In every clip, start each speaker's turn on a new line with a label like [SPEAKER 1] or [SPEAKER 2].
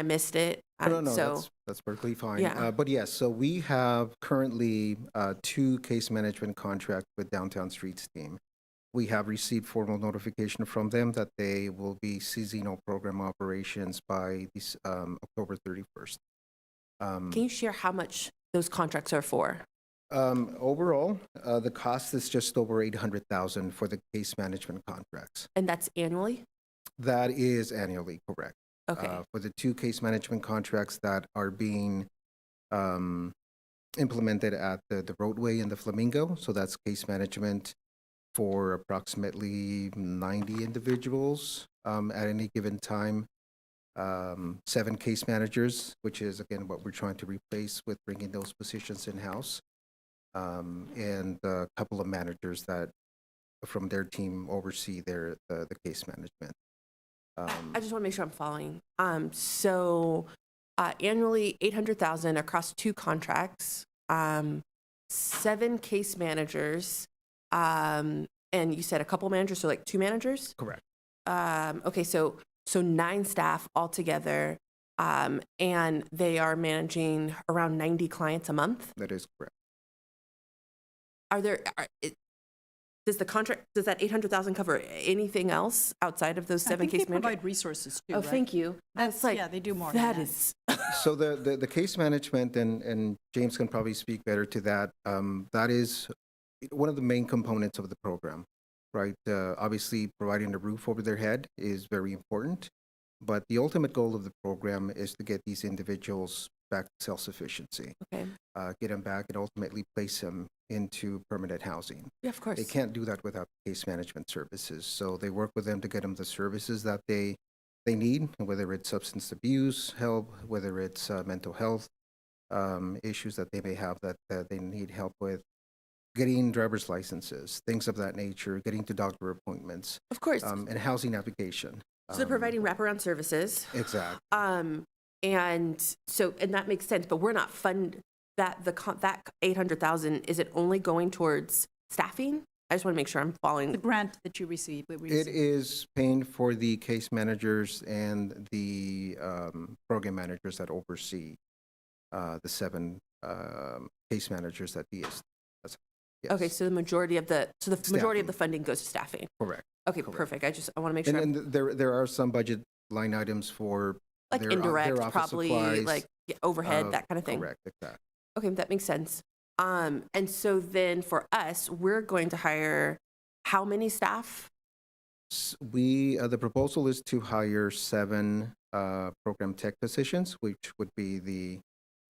[SPEAKER 1] I missed it. I-
[SPEAKER 2] No, no,
[SPEAKER 1] So,
[SPEAKER 2] that's, that's perfectly fine.
[SPEAKER 1] Yeah.
[SPEAKER 2] Uh, But yes, so we have currently uh, two case management contracts with Downtown Streets team. We have received formal notification from them that they will be ceasing all program operations by this, um, October 31st. Um,
[SPEAKER 1] can you share how much those contracts are for?
[SPEAKER 2] um, Overall, uh, the cost is just over 800,000 for the case management contracts.
[SPEAKER 1] And that's annually?
[SPEAKER 2] That is annually, correct.
[SPEAKER 1] Okay,
[SPEAKER 2] uh, for the two case management contracts that are being um, implemented at the, the roadway and the Flamingo. So that's case management for approximately 90 individuals um, at any given time. Um, seven case managers, which is again what we're trying to replace with bringing those positions in house, um, and a couple of managers that from their team oversee their the, the case management. Um,
[SPEAKER 1] I just want to make sure I'm following. Um, so uh, annually, 800,000 across two contracts, um, seven case managers, um, and you said a couple managers, so like two managers?
[SPEAKER 2] Correct.
[SPEAKER 1] Um, okay, so, so nine staff altogether, um, and they are managing around 90 clients a month?
[SPEAKER 2] That is correct.
[SPEAKER 1] are there are, it, does the contract does that 800,000 cover anything else outside of those
[SPEAKER 3] I
[SPEAKER 1] seven
[SPEAKER 3] think they
[SPEAKER 1] case managers?
[SPEAKER 3] provide resources too,
[SPEAKER 1] Oh,
[SPEAKER 3] right?
[SPEAKER 1] thank you. That's
[SPEAKER 3] That's-
[SPEAKER 1] like
[SPEAKER 3] yeah, they do more than
[SPEAKER 1] That
[SPEAKER 3] that.
[SPEAKER 1] is
[SPEAKER 2] So the, the, the case management, and, and James can probably speak better to that, um, that is one of the main components of the program, right? Uh, obviously, providing a roof over their head is very important, but the ultimate goal of the program is to get these individuals back to self-sufficiency,
[SPEAKER 1] okay.
[SPEAKER 2] uh, get them back and ultimately place them into permanent housing.
[SPEAKER 1] Yeah, of course.
[SPEAKER 2] They can't do that without case management services. So they work with them to get them the services that they, they need, whether it's substance abuse help, whether it's uh, mental health um, issues that they may have that, that they need help with, getting driver's licenses, things of that nature, getting to doctor appointments,
[SPEAKER 1] Of course.
[SPEAKER 2] um, and housing application.
[SPEAKER 1] so they're
[SPEAKER 2] Um,
[SPEAKER 1] providing wraparound services.
[SPEAKER 2] Exactly.
[SPEAKER 1] Um and so and that makes sense, but we're not fund that the con- that 800,000 is it only going towards staffing? I just want to make sure I'm following
[SPEAKER 3] The grant that you receive, that we
[SPEAKER 2] It
[SPEAKER 3] receive.
[SPEAKER 2] is paying for the case managers and the um, program managers that oversee uh, the seven um, case managers that DS. that's-
[SPEAKER 1] Okay,
[SPEAKER 2] yes,
[SPEAKER 1] so the majority of the so the majority of
[SPEAKER 2] Staffing.
[SPEAKER 1] the funding goes to staffing.
[SPEAKER 2] Correct.
[SPEAKER 1] Okay,
[SPEAKER 2] Correct.
[SPEAKER 1] perfect. I just I want to make sure
[SPEAKER 2] And
[SPEAKER 1] I'm
[SPEAKER 2] then there, there are some budget line items for.
[SPEAKER 1] like
[SPEAKER 2] their o- their
[SPEAKER 1] indirect,
[SPEAKER 2] office
[SPEAKER 1] probably
[SPEAKER 2] supplies,
[SPEAKER 1] like yeah, overhead,
[SPEAKER 2] uh,
[SPEAKER 1] that kind of thing.
[SPEAKER 2] Correct, exactly.
[SPEAKER 1] Okay, that makes sense. Um, and so then for us, we're going to hire how many staff?
[SPEAKER 2] S- We, uh, the proposal is to hire seven uh, program tech positions, which would be the,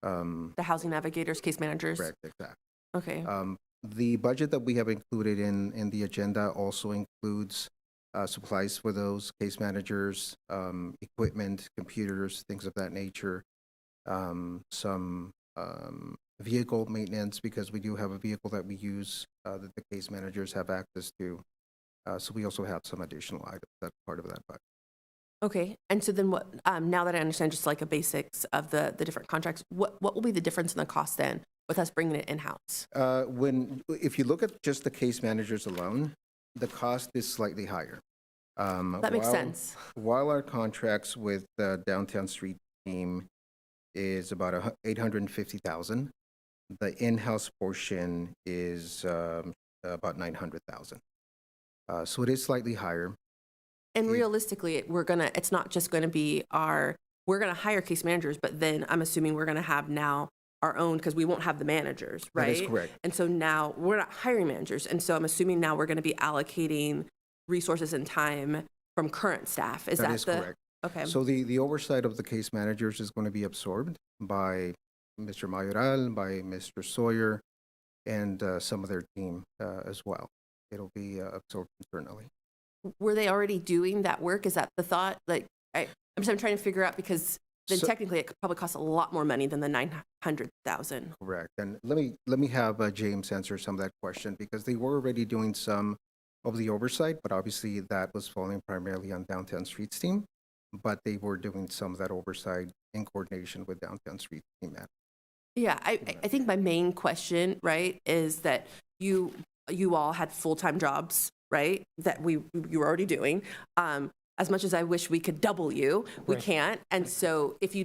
[SPEAKER 2] um,
[SPEAKER 1] The housing navigators, case managers.
[SPEAKER 2] correct, exactly.
[SPEAKER 1] Okay.
[SPEAKER 2] Um, The budget that we have included in, in the agenda also includes uh, supplies for those case managers, um, equipment, computers, things of that nature, um, some um, vehicle maintenance, because we do have a vehicle that we use uh, that the case managers have access to. Uh, So we also have some additional items that part of that budget.
[SPEAKER 1] Okay. And so then what? Um, now that I understand, just like the basics of the the different contracts, what what will be the difference in the cost then with us bringing it in house?
[SPEAKER 2] Uh, When, if you look at just the case managers alone, the cost is slightly higher. Um,
[SPEAKER 1] That makes sense.
[SPEAKER 2] While our contracts with the downtown street team is about a hu- 850,000, the in-house portion is um, about 900,000. Uh, So it is slightly higher.
[SPEAKER 1] And
[SPEAKER 2] it-
[SPEAKER 1] realistically, it- we're gonna. It's not just going to be our. We're going to hire case managers, but then I'm assuming we're going to have now our own because we won't have the managers, right?
[SPEAKER 2] That is correct.
[SPEAKER 1] And so now we're not hiring managers. And so I'm assuming now we're going to be allocating resources and time from current staff. Is that,
[SPEAKER 2] That is
[SPEAKER 1] the
[SPEAKER 2] correct.
[SPEAKER 1] okay?
[SPEAKER 2] So the, the oversight of the case managers is going to be absorbed by Mr. Mayoral, by Mr. Sawyer, and uh, some of their team uh, as well. It'll be uh, absorbed internally.
[SPEAKER 1] Were they already doing that work? Is that the thought? Like I, I'm just I'm trying to figure out because then
[SPEAKER 2] So-
[SPEAKER 1] technically it could probably cost a lot more money than the nine hundred thousand.
[SPEAKER 2] Correct. And let me, let me have uh, James answer some of that question because they were already doing some of the oversight, but obviously that was falling primarily on Downtown Streets team. But they were doing some of that oversight in coordination with Downtown Streets team. at-
[SPEAKER 1] Yeah, I, I- I
[SPEAKER 2] Correct.
[SPEAKER 1] think my main question, right, is that you you all had full time jobs, right? That we you were already doing. Um, as much as I wish we could double you, we
[SPEAKER 4] Right.
[SPEAKER 1] can't. And so if you